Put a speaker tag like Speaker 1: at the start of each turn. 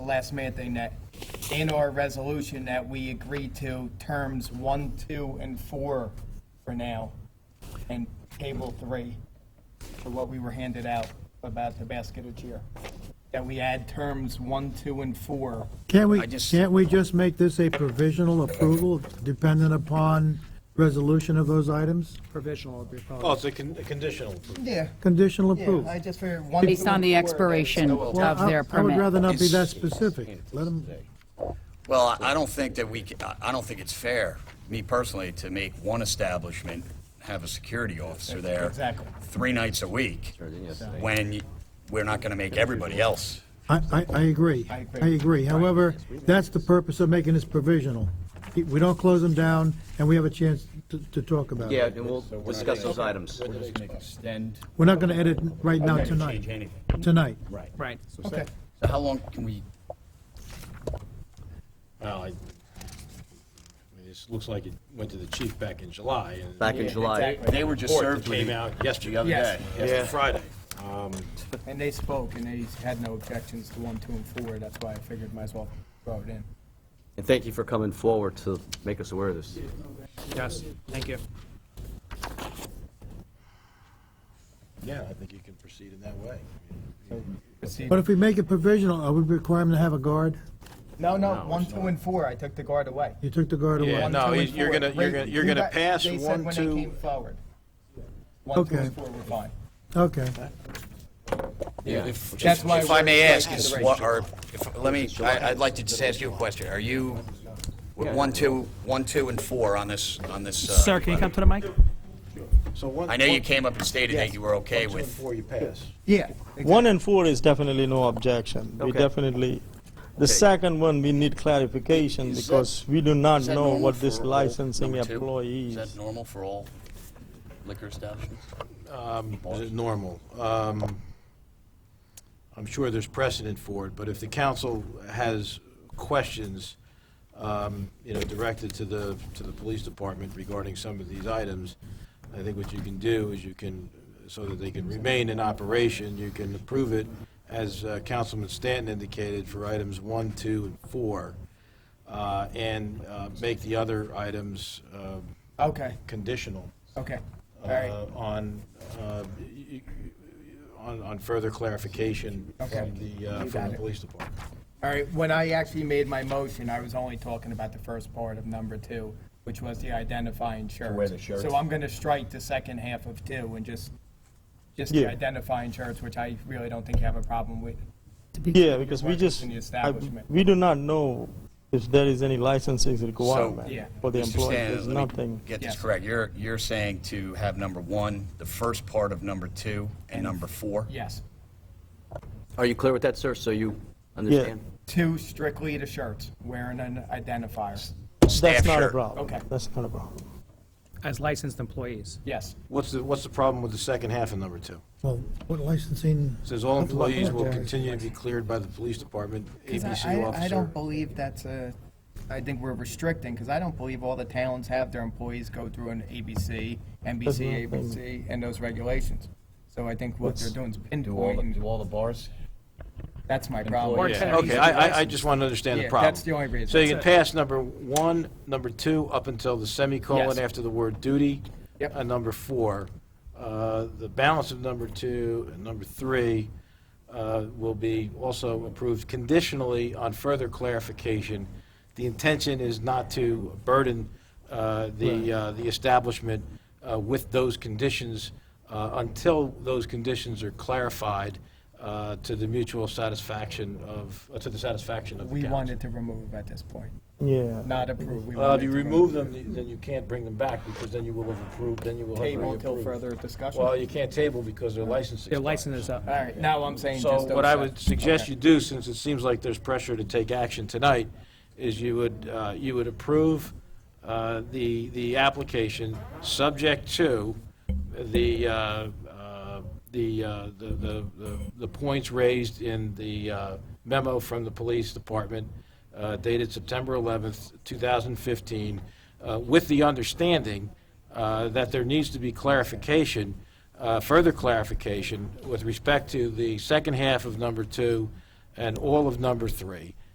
Speaker 1: the last minute thing that in our resolution that we agreed to terms one, two, and four for now, and table three for what we were handed out about the basket of cheer. That we add terms one, two, and four.
Speaker 2: Can't we,
Speaker 3: I just-
Speaker 2: can't we just make this a provisional approval dependent upon resolution of those items?
Speaker 4: provisional would be probably.
Speaker 5: Oh, it's a con- a conditional. approval.
Speaker 1: Yeah,
Speaker 2: Conditional approval?
Speaker 1: just figured one.
Speaker 6: Based on the expiration
Speaker 2: Well,
Speaker 6: of
Speaker 2: I-
Speaker 6: their
Speaker 2: I would rather
Speaker 6: permit.
Speaker 2: not be that specific. Let them,
Speaker 3: Well, I- I don't think that we, ca- I I don't think it's fair, me personally, to make one establishment have a security officer there.
Speaker 1: Exactly.
Speaker 3: Three nights a week, when you- we're not going to make everybody else.
Speaker 2: I, I, I agree.
Speaker 1: I agree.
Speaker 2: I agree. However, that's the purpose of making this provisional. We don't close them down, and we have a chance to, to talk about
Speaker 7: Yeah,
Speaker 2: it.
Speaker 7: and we'll discuss those items.
Speaker 3: Extend.
Speaker 2: We're not gonna edit right now tonight,
Speaker 3: Change anything.
Speaker 2: tonight.
Speaker 3: Right.
Speaker 4: Right.
Speaker 1: Okay,
Speaker 3: So how long can we,
Speaker 5: Well, I, I mean, this looks like it went to the chief back in July. and-
Speaker 7: Back in July.
Speaker 1: exactly.
Speaker 3: they were just
Speaker 5: Report that
Speaker 3: served with
Speaker 5: came
Speaker 3: it
Speaker 5: out
Speaker 3: the
Speaker 5: yesterday,
Speaker 3: other
Speaker 1: Yes.
Speaker 3: day.
Speaker 5: yesterday, Friday.
Speaker 1: and they spoke, and they had no objections to one, two, and four, that's why I figured might as well throw it in.
Speaker 7: And thank you for coming forward to make us aware of this.
Speaker 4: Yes, thank you.
Speaker 5: Yeah, I think you can proceed in that way.
Speaker 1: So, proceed.
Speaker 2: But if we make it provisional, are we requiring them to have a guard?
Speaker 1: No, no, one, two, and four, I took the guard away.
Speaker 2: You took the guard away.
Speaker 5: Yeah,
Speaker 1: One,
Speaker 5: no,
Speaker 1: two,
Speaker 5: you-
Speaker 1: and
Speaker 5: you're
Speaker 1: four.
Speaker 5: gonna- you're gonna- you're gonna
Speaker 1: They said
Speaker 5: pass one,
Speaker 1: when
Speaker 5: two-
Speaker 1: they came forward. One, two,
Speaker 2: Okay.
Speaker 1: and four were fine.
Speaker 2: Okay.
Speaker 3: If
Speaker 1: That's why
Speaker 3: if I
Speaker 1: we're-
Speaker 3: may ask,
Speaker 1: we're
Speaker 3: is
Speaker 1: at the
Speaker 3: what are, if, let me, I- I'd like to just ask you a question. Are you, one, two, one, two, and four on this, on this? uh,
Speaker 4: Sir, can you come to the mic?
Speaker 5: So one-
Speaker 3: I know you
Speaker 5: one-
Speaker 3: came up and stated that you were okay
Speaker 5: One, two, and
Speaker 3: with,
Speaker 5: four, you pass.
Speaker 1: Yeah.
Speaker 8: One and four is definitely no objection. We
Speaker 7: Okay.
Speaker 8: definitely, the second one, we need clarification
Speaker 3: Is that-
Speaker 8: because we do not
Speaker 3: Is that
Speaker 8: know
Speaker 3: normal
Speaker 8: what this
Speaker 3: for all
Speaker 8: licensing
Speaker 3: number two?
Speaker 8: employee
Speaker 3: Is that
Speaker 8: is.
Speaker 3: normal for all liquor establishments?
Speaker 5: This is normal. Um, I'm sure there's precedent for it, but if the council has questions, um, you know, directed to the, to the police department regarding some of these items, I think what you can do is you can, so that they can remain in operation, you can approve it, as uh, Councilman Stanton indicated, for items one, two, and four, uh, and uh, make the other items uh,
Speaker 1: Okay,
Speaker 5: conditional
Speaker 1: okay, all
Speaker 5: uh,
Speaker 1: right,
Speaker 5: on, uh, y- y- on, on further clarification
Speaker 1: Okay.
Speaker 5: from the, uh,
Speaker 1: You
Speaker 5: from
Speaker 1: got
Speaker 5: the
Speaker 1: it.
Speaker 5: police department.
Speaker 1: all right. When I actually made my motion, I was only talking about the first part of number two, which was the identifying shirts.
Speaker 3: wear the shirts.
Speaker 1: So I'm gonna strike the second half of two and just, just the
Speaker 8: Yeah.
Speaker 1: identifying shirts, which I really don't think you have a problem with.
Speaker 8: Yeah, because we
Speaker 1: Workers
Speaker 8: just,
Speaker 1: in the
Speaker 8: I-
Speaker 1: establishment.
Speaker 8: we do not know if there is any licensing
Speaker 1: Yeah.
Speaker 8: requirement for the
Speaker 3: Mr.
Speaker 8: employee.
Speaker 3: Stan, let
Speaker 8: There's
Speaker 3: me
Speaker 8: nothing.
Speaker 3: Get this
Speaker 1: Yes.
Speaker 3: correct. You're, you're saying to have number one, the first part of number two, and number four?
Speaker 1: Yes,
Speaker 7: Are you clear with that, sir, so you understand?
Speaker 1: two strictly the shirts, wearing an identifier.
Speaker 8: That's
Speaker 3: Staff
Speaker 8: not a
Speaker 3: shirt.
Speaker 8: problem.
Speaker 1: Okay.
Speaker 8: That's not a problem.
Speaker 4: As licensed employees.
Speaker 1: Yes,
Speaker 5: What's the, what's the problem with the second half of number two?
Speaker 2: Well, what licensing?
Speaker 5: It Says all employees will
Speaker 2: Okay.
Speaker 5: continue to be cleared by the police department,
Speaker 1: Because
Speaker 5: ABC
Speaker 1: I, I
Speaker 5: officer.
Speaker 1: don't believe that's a, I think we're restricting, because I don't believe all the towns have their employees go through an ABC, NBC, ABC, and those regulations. So I think what they're doing is pinpointing,
Speaker 3: all the bars?
Speaker 1: that's my problem.
Speaker 4: Or
Speaker 5: Yeah, Okay, I, I, I just want to understand the
Speaker 1: Yeah,
Speaker 5: problem.
Speaker 1: that's the only reason.
Speaker 5: So you can
Speaker 1: That's
Speaker 5: pass number one, number two, up until the
Speaker 1: Yes.
Speaker 5: semicolon after the word duty.
Speaker 1: Yep.
Speaker 5: And number four, uh, the balance of number two and number three uh, will be also approved conditionally on further clarification. The intention is not to burden uh, the, uh, the establishment uh, with those conditions uh, until those conditions are clarified uh, to the mutual satisfaction of, uh, to the satisfaction of the
Speaker 1: We
Speaker 5: council.
Speaker 1: wanted to remove at this point,
Speaker 8: Yeah.
Speaker 1: not approve. We
Speaker 5: Well, if
Speaker 1: wanted
Speaker 5: Uh, you
Speaker 1: to
Speaker 5: remove them, you- then you can't bring them back, because then you will have approved, then you will have
Speaker 1: Table
Speaker 5: reapproved.
Speaker 1: until further
Speaker 5: Well,
Speaker 1: discussion.
Speaker 5: you can't table because their license
Speaker 4: Their
Speaker 5: expires.
Speaker 4: license is up.
Speaker 1: All right, now I'm saying
Speaker 5: So
Speaker 1: just.
Speaker 5: what I
Speaker 1: those
Speaker 5: would
Speaker 1: sets.
Speaker 5: suggest
Speaker 1: Okay.
Speaker 5: you do, since it seems like there's pressure to take action tonight, is you would, uh, you would approve uh, the, the application, subject to the, uh, uh, the, uh, the, the- the- the points raised in the uh, memo from the police department uh, dated September 11th, 2015, uh, with the understanding uh, that there needs to be clarification uh, further clarification with respect to the second half of number two and all of number three.